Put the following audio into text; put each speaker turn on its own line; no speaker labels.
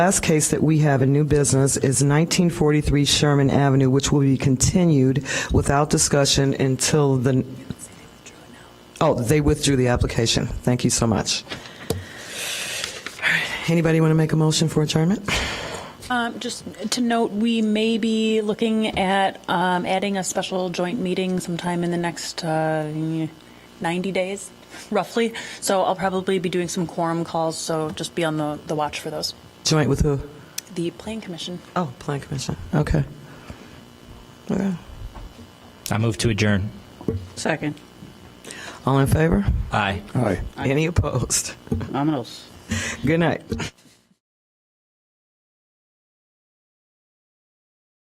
Last case that we have in new business is 1943 Sherman Avenue, which will be continued without discussion until the, oh, they withdrew the application. Thank you so much. All right. Anybody want to make a motion for adjournment?
Um, Just to note, we may be looking at um, adding a special joint meeting sometime in the next uh, 90 days, roughly. So I'll probably be doing some quorum calls, so just be on the the watch for those.
Joint with who?
The Plan Commission.
Oh, Plan Commission. Okay. Okay.
I move to adjourn.
Second.
All in favor?
Aye.
Any opposed?
Vamanos.
Good night.